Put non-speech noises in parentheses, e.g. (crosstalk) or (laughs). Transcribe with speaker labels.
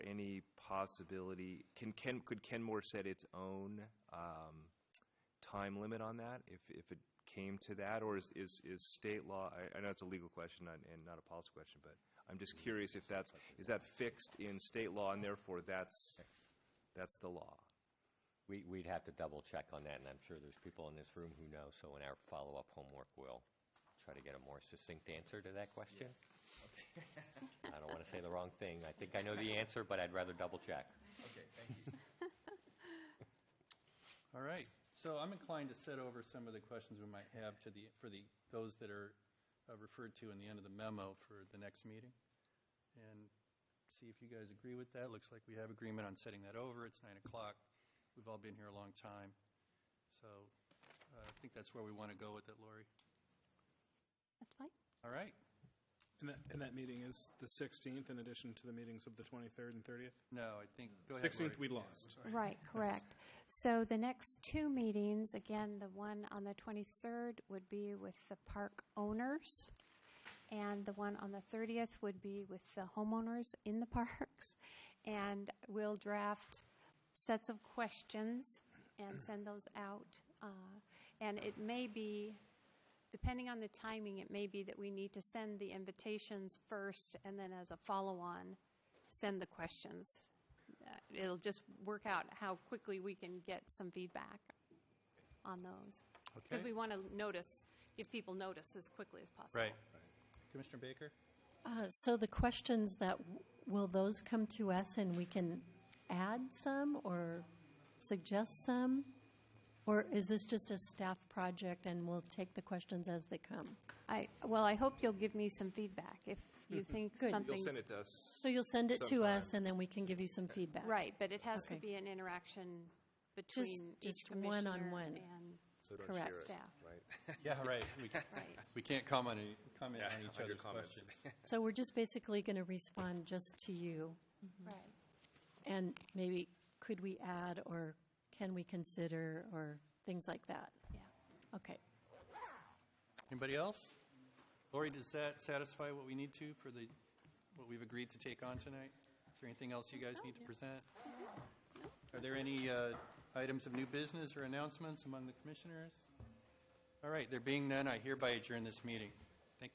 Speaker 1: a possibility? Can Ken, could Kenmore set its own um, time limit on that if, if it came to that? Or is, is, is state law, I, I know it's a legal question and and not a policy question, but I'm just curious if that's, is that fixed in state law and therefore that's, that's the law?
Speaker 2: We, we'd have to double check on that, and I'm sure there's people in this room who know, so in our follow-up homework, we'll try to get a more succinct answer to that question. I don't want to say the wrong thing. I think I know the answer, but I'd rather double check.
Speaker 3: Okay, thank you. All right, so I'm inclined to set over some of the questions we might have to the, for the, those that are uh, referred to in the end of the memo for the next meeting. And see if you guys agree with that. Looks like we have agreement on setting that over. It's nine o'clock. We've all been here a long time. So uh, I think that's where we want to go with it, Lori.
Speaker 4: That's fine.
Speaker 3: All right,
Speaker 5: And that, and that meeting is the 16th in addition to the meetings of the 23rd and 30th?
Speaker 3: no, I think, go ahead, Lori.
Speaker 5: 16th, we lost.
Speaker 4: Right, correct. So the next two meetings, again, the one on the 23rd would be with the park owners, and the one on the 30th would be with the homeowners in the (laughs) parks. And we'll draft sets of questions and send those out. Uh, And it may be, depending on the timing, it may be that we need to send the invitations first, and then as a follow-on, send the questions uh, it'll just work out how quickly we can get some feedback on those. Because
Speaker 3: Okay.
Speaker 4: we want to notice, give people notice as quickly as possible.
Speaker 3: Right. Commissioner Baker?
Speaker 6: Uh, So the questions that, will those come to us and we can add some or suggest some? Or is this just a staff project and we'll take the questions as they come?
Speaker 4: I, well, I hope you'll give me some feedback if you think
Speaker 6: Good. You'll
Speaker 1: Mm-hmm. You'll
Speaker 4: something's.
Speaker 1: send it to us.
Speaker 6: So you'll send it to us
Speaker 1: Sometime.
Speaker 6: and then we can give you some feedback?
Speaker 4: Right, but it has to
Speaker 6: Okay.
Speaker 4: be an interaction between each
Speaker 6: just
Speaker 4: commissioner
Speaker 6: one-on-one.
Speaker 4: and
Speaker 1: So don't
Speaker 6: Correct.
Speaker 1: share it,
Speaker 4: Yeah.
Speaker 1: right?
Speaker 3: Yeah, right. We-
Speaker 4: Right.
Speaker 3: We can't comment, any- comment
Speaker 1: Yeah,
Speaker 3: on
Speaker 1: on
Speaker 3: each
Speaker 1: your
Speaker 3: other's
Speaker 1: comments.
Speaker 3: questions.
Speaker 6: So we're just basically going to respond just to you?
Speaker 4: Right.
Speaker 1: (laughs)
Speaker 6: And maybe could we add or can we consider or things like that?
Speaker 4: Yeah.
Speaker 6: Okay.
Speaker 3: Anybody else? Lori, does that satisfy what we need to for the, what we've agreed to take on tonight? Is there anything else you guys need to present? Are there any uh, items of new business or announcements among the commissioners? All right, there being none, I hereby adjourn this meeting.